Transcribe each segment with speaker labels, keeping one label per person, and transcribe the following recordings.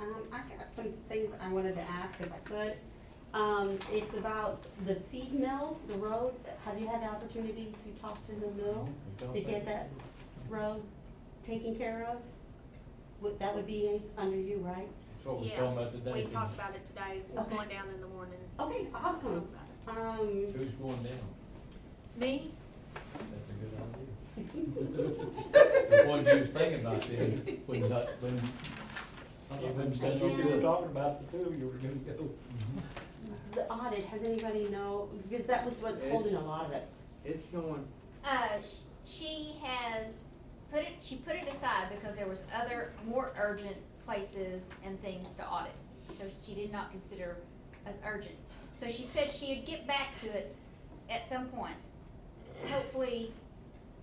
Speaker 1: Um, I got some things I wanted to ask if I could. Um, it's about the feed mill, the road. Have you had the opportunity to talk to the mill to get that road taken care of? Would, that would be under you, right?
Speaker 2: That's what we
Speaker 3: Yeah,
Speaker 2: were talking about today.
Speaker 3: We talked about it today, we're
Speaker 1: Okay.
Speaker 3: going down in the morning.
Speaker 1: Okay, awesome. Um,
Speaker 2: Who's going down?
Speaker 3: Me,
Speaker 2: That's a good idea. The ones you was thinking about then, when, not- when.
Speaker 4: Even since you were talking about the two, you were gonna go.
Speaker 1: the audit, has anybody know, because that was what's holding a
Speaker 5: It's-
Speaker 1: lot of us.
Speaker 5: It's going,
Speaker 6: Uh, sh- she has put it, she put it aside because there was other more urgent places and things to audit. So she did not consider as urgent. So she said she'd get back to it at some point, hopefully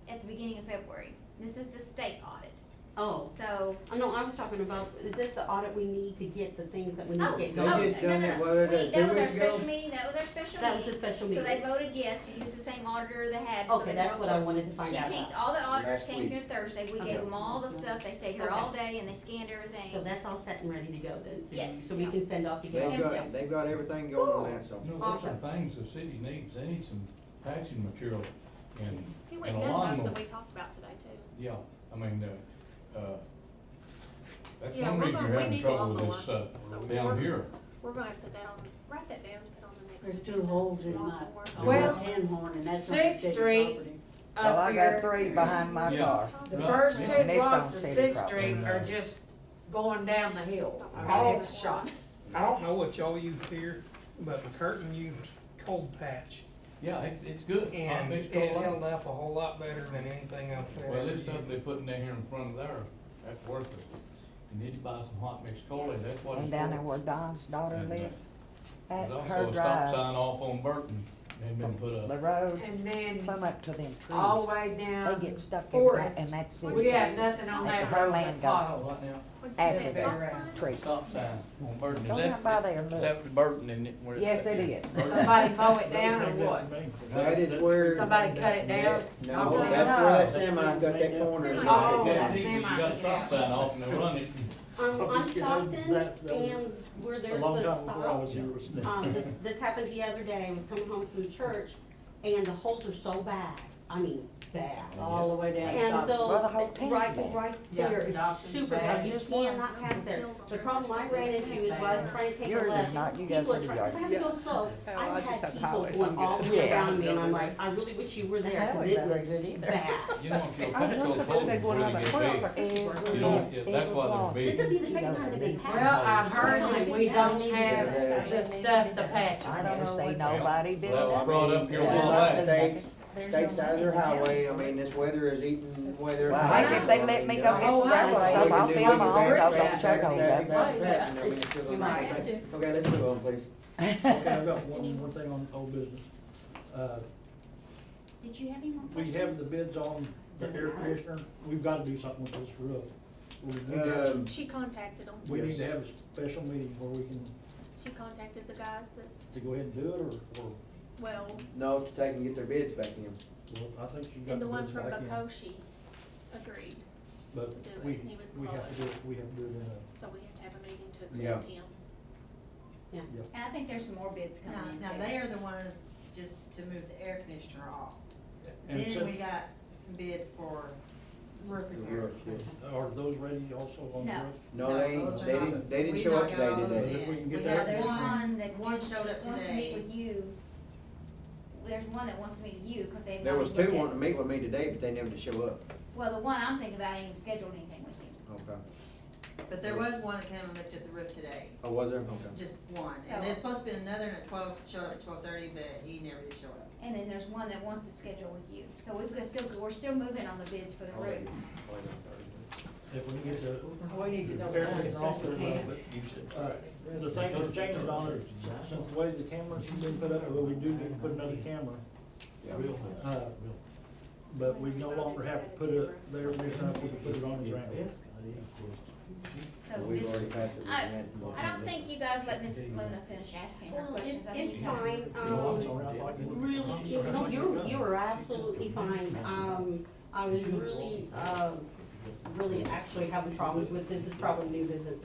Speaker 6: at the beginning of February. This is the state audit,
Speaker 1: Oh,
Speaker 6: so.
Speaker 1: oh, no, I was talking about, is it the audit we need to get the things that we need
Speaker 6: Oh,
Speaker 1: to get
Speaker 5: They
Speaker 1: going?
Speaker 6: oh,
Speaker 5: just
Speaker 6: no,
Speaker 5: done
Speaker 6: no,
Speaker 5: it,
Speaker 6: no.
Speaker 5: what, uh, two
Speaker 6: We- That was our
Speaker 5: weeks ago?
Speaker 6: special meeting, that was our special
Speaker 1: That was the
Speaker 6: meeting.
Speaker 1: special
Speaker 6: So they
Speaker 1: meeting.
Speaker 6: voted yes to use the same auditor they had. so
Speaker 1: Okay,
Speaker 6: they
Speaker 1: that's
Speaker 6: broke
Speaker 1: what I
Speaker 6: up.
Speaker 1: wanted to find
Speaker 6: She
Speaker 1: out
Speaker 6: came,
Speaker 1: about.
Speaker 6: all the auditors
Speaker 5: Last
Speaker 6: came
Speaker 5: week.
Speaker 6: here Thursday, we
Speaker 1: Okay.
Speaker 6: gave them all the stuff, they stayed here
Speaker 1: Okay.
Speaker 6: all day and they scanned
Speaker 1: So
Speaker 6: everything.
Speaker 1: that's all set and ready to go then? so-
Speaker 6: Yes.
Speaker 1: So we can send off to get it?
Speaker 5: they've got, they've got everything going on that, so.
Speaker 2: You know, there's some things the city needs, they need some patching material and,
Speaker 3: he
Speaker 2: and
Speaker 3: went
Speaker 2: a
Speaker 3: down those
Speaker 2: lawnmower.
Speaker 3: that we talked about today too.
Speaker 2: Yeah, I mean, uh, uh, that's
Speaker 3: Yeah,
Speaker 2: one
Speaker 3: we're
Speaker 2: reason
Speaker 3: gonna-
Speaker 2: you're
Speaker 3: we
Speaker 2: having
Speaker 3: need a
Speaker 2: trouble with
Speaker 3: lawnmower.
Speaker 2: this, uh,
Speaker 3: But
Speaker 2: down
Speaker 3: we're-
Speaker 2: here.
Speaker 3: We're gonna put that on, write that down, put on the next.
Speaker 7: There's two holes in my, on my
Speaker 8: Well,
Speaker 7: horn, and that's on the
Speaker 8: Sixth
Speaker 7: city
Speaker 8: Street
Speaker 7: property.
Speaker 8: up
Speaker 9: Well, I
Speaker 8: here.
Speaker 9: got three behind my
Speaker 2: Yeah.
Speaker 9: car.
Speaker 3: Talk
Speaker 8: The
Speaker 3: about-
Speaker 8: first
Speaker 2: Yeah.
Speaker 8: two
Speaker 9: And it's on
Speaker 8: blocks of
Speaker 9: city
Speaker 8: Sixth
Speaker 9: property.
Speaker 8: Street are just going down the hill.
Speaker 3: Talk
Speaker 8: I
Speaker 3: about
Speaker 8: mean, it's
Speaker 3: that.
Speaker 8: shot.
Speaker 10: I don't know what y'all use here, but McCurtain used cold patch,
Speaker 2: Yeah, it, it's good.
Speaker 10: and
Speaker 2: Uh,
Speaker 10: it
Speaker 2: it's got a lot-
Speaker 10: held up a whole lot better than anything else. I've
Speaker 2: Well,
Speaker 10: ever
Speaker 2: this stuff
Speaker 10: used.
Speaker 2: they putting down here in front of there, that's worthless. You need to buy some hot mixed cola, that's what it's
Speaker 9: And
Speaker 2: for.
Speaker 9: down there where Don's daughter
Speaker 2: And, uh,
Speaker 9: lives, at
Speaker 2: There's
Speaker 9: her
Speaker 2: also a stop
Speaker 9: drive,
Speaker 2: sign off on Burton, they've been put
Speaker 9: the
Speaker 2: up.
Speaker 9: road,
Speaker 8: And then
Speaker 9: come up to them
Speaker 8: all
Speaker 9: trees.
Speaker 8: the way
Speaker 9: They
Speaker 8: down
Speaker 9: get stuck in that,
Speaker 8: Forest.
Speaker 9: and that's
Speaker 8: We
Speaker 9: it.
Speaker 8: had nothing on
Speaker 9: That's
Speaker 8: that
Speaker 9: her
Speaker 8: road
Speaker 9: land
Speaker 8: but
Speaker 9: goes.
Speaker 2: What
Speaker 8: potholes.
Speaker 2: now?
Speaker 3: What'd you
Speaker 9: After
Speaker 3: say,
Speaker 9: they
Speaker 3: stop
Speaker 8: were
Speaker 3: sign?
Speaker 9: tree.
Speaker 2: Stop sign on Burton, is
Speaker 9: Don't
Speaker 2: that,
Speaker 9: come by there,
Speaker 2: is
Speaker 9: look.
Speaker 2: that the Burton, isn't it? where it's
Speaker 9: Yes,
Speaker 2: at?
Speaker 9: it is.
Speaker 8: Somebody mow it down or what?
Speaker 5: That is where.
Speaker 8: Somebody cut it down?
Speaker 5: No,
Speaker 8: Okay.
Speaker 5: that's where that semi got that corner. in
Speaker 2: It's
Speaker 5: it.
Speaker 8: Oh, that
Speaker 2: guaranteed you
Speaker 8: semi
Speaker 2: got a
Speaker 8: took
Speaker 2: stop
Speaker 8: it
Speaker 2: sign off and they run it.
Speaker 1: Um, on
Speaker 4: Oh, You know,
Speaker 1: Stockton
Speaker 4: that- that was
Speaker 1: and where
Speaker 4: A
Speaker 1: there's
Speaker 4: long
Speaker 1: the
Speaker 4: time before I was
Speaker 1: stops,
Speaker 4: here.
Speaker 1: um, this, this happened the other day, I was coming home from church, and the holes are so bad, I mean, bad.
Speaker 7: All the way down.
Speaker 1: And
Speaker 9: Well, the whole
Speaker 1: so,
Speaker 9: town's
Speaker 1: right,
Speaker 9: bad.
Speaker 1: right
Speaker 8: Yeah,
Speaker 1: there is
Speaker 8: Stockton's
Speaker 1: super
Speaker 8: bad.
Speaker 1: tough, you
Speaker 9: Just one.
Speaker 1: cannot pass there. The problem I ran into is while I was trying to take a
Speaker 9: Yours is
Speaker 1: left,
Speaker 9: not. You
Speaker 1: people
Speaker 9: go
Speaker 1: are
Speaker 9: through
Speaker 1: trying,
Speaker 9: the
Speaker 1: cause I have to go slow.
Speaker 9: yard.
Speaker 1: I
Speaker 9: Oh, I just
Speaker 1: had
Speaker 9: have
Speaker 1: people
Speaker 9: highways,
Speaker 1: going
Speaker 9: I'm
Speaker 1: all the
Speaker 9: good.
Speaker 1: way
Speaker 9: Yeah.
Speaker 1: around me, and I'm like, I really wish you were there,
Speaker 9: That
Speaker 1: cause
Speaker 9: was
Speaker 1: it
Speaker 9: not very
Speaker 1: was
Speaker 9: good either.
Speaker 1: bad.
Speaker 2: You don't feel
Speaker 9: I
Speaker 2: comfortable
Speaker 9: wonder if
Speaker 2: holding
Speaker 9: they
Speaker 2: before
Speaker 9: going
Speaker 2: they
Speaker 9: out
Speaker 2: get
Speaker 9: of
Speaker 2: big. You don't, yeah, that's why they're big.
Speaker 1: This'll be the second time they've been passed.
Speaker 8: Well, I heard that we don't have the stuff to patch.
Speaker 9: I never see
Speaker 2: Yeah. Well,
Speaker 9: nobody do
Speaker 2: that was
Speaker 9: that.
Speaker 2: brought up here a
Speaker 9: Yeah.
Speaker 2: while back.
Speaker 5: States, state side of their highway, I mean, this weather is eating weather.
Speaker 9: Well, I guess they let me go
Speaker 8: Oh,
Speaker 9: get some gravel,
Speaker 8: I-
Speaker 9: so I'll film all those on the
Speaker 8: Yeah.
Speaker 9: chokehold.
Speaker 5: Okay, let's move on, please.
Speaker 4: Okay, I've got one more thing on old business. Uh,
Speaker 6: Did you have any more
Speaker 4: we
Speaker 6: questions?
Speaker 4: have the bids on the air conditioner, we've gotta do something with this roof. We need to-
Speaker 5: Um,
Speaker 3: She contacted them,
Speaker 4: We need to
Speaker 5: yes.
Speaker 4: have a special meeting where we can,
Speaker 3: she contacted the guys that's,
Speaker 4: to go ahead and do it, or, or,
Speaker 3: well,
Speaker 5: No, to take and get their bids back in.
Speaker 4: well, I think you got
Speaker 3: and
Speaker 4: the
Speaker 3: the one
Speaker 4: bids
Speaker 3: from
Speaker 4: back in.
Speaker 3: Bakoshi agreed,
Speaker 4: But
Speaker 3: to do it,
Speaker 4: we,
Speaker 3: he was the
Speaker 4: we have to do, it- we have to do it in a,
Speaker 3: so we have to have a meeting to
Speaker 5: Yeah.
Speaker 3: accept him.
Speaker 6: And I think there's some more bids
Speaker 11: Now,
Speaker 6: coming in
Speaker 11: now
Speaker 6: too.
Speaker 11: they are the ones just to move the air conditioner off.
Speaker 4: and
Speaker 11: Then we
Speaker 4: since,
Speaker 11: got some bids for some roof
Speaker 5: The
Speaker 11: repairs.
Speaker 5: roof, yes.
Speaker 4: are those ready also on the
Speaker 6: No.
Speaker 4: roof?
Speaker 5: No, they,
Speaker 11: those
Speaker 5: ain't-
Speaker 11: are
Speaker 5: they
Speaker 11: not-
Speaker 5: didn't, they didn't
Speaker 11: we
Speaker 5: show up
Speaker 11: don't
Speaker 5: today,
Speaker 11: got
Speaker 5: did
Speaker 11: those
Speaker 4: If
Speaker 5: they?
Speaker 11: in.
Speaker 4: we can get
Speaker 11: We
Speaker 4: that-
Speaker 11: got
Speaker 6: There's one that
Speaker 11: One showed up
Speaker 6: wants to meet
Speaker 11: today.
Speaker 6: with you. There's one that wants to meet with you, cause they've
Speaker 5: There
Speaker 6: not
Speaker 5: was
Speaker 6: even
Speaker 5: two
Speaker 6: looked at-
Speaker 5: wanting to meet with me today, but they never did show up.
Speaker 6: Well, the one I'm thinking about ain't even scheduled anything with you.
Speaker 5: Okay.
Speaker 11: But there was one that came and looked at the roof today,
Speaker 5: Oh, was there? Okay.
Speaker 11: just one.
Speaker 6: So-
Speaker 11: And there's supposed to be another one at twelve, showed up at twelve thirty, but he never did show up.
Speaker 6: And then there's one that wants to schedule with you. So we've got still, we're still moving on the bids for the
Speaker 5: I'll let
Speaker 6: roof.
Speaker 5: you- I'll let you on Thursday.
Speaker 4: If we can get the
Speaker 8: We
Speaker 1: Um,
Speaker 8: need to get
Speaker 4: air
Speaker 8: those things
Speaker 4: conditioner
Speaker 8: off
Speaker 4: off the
Speaker 8: the
Speaker 4: roof,
Speaker 8: can.
Speaker 4: but Uh, The things are changing on it, since- since the way the cameras have been put up, well, we do need to put another camera,
Speaker 5: Yeah.
Speaker 4: uh, but we no longer have to put it there, this time we can put it on the ground.
Speaker 6: So
Speaker 5: We've
Speaker 6: bids-
Speaker 5: already passed it.
Speaker 6: I- I don't think you guys let Miss Luna finish asking her
Speaker 1: Well,
Speaker 6: questions.
Speaker 1: it-
Speaker 6: I think
Speaker 1: it's
Speaker 6: you guys-
Speaker 1: fine,
Speaker 4: No, I'm
Speaker 1: um,
Speaker 4: sorry, I thought you-
Speaker 1: Really, you know, you, you were absolutely fine, um, I was really, um, really actually having problems with, this is probably new business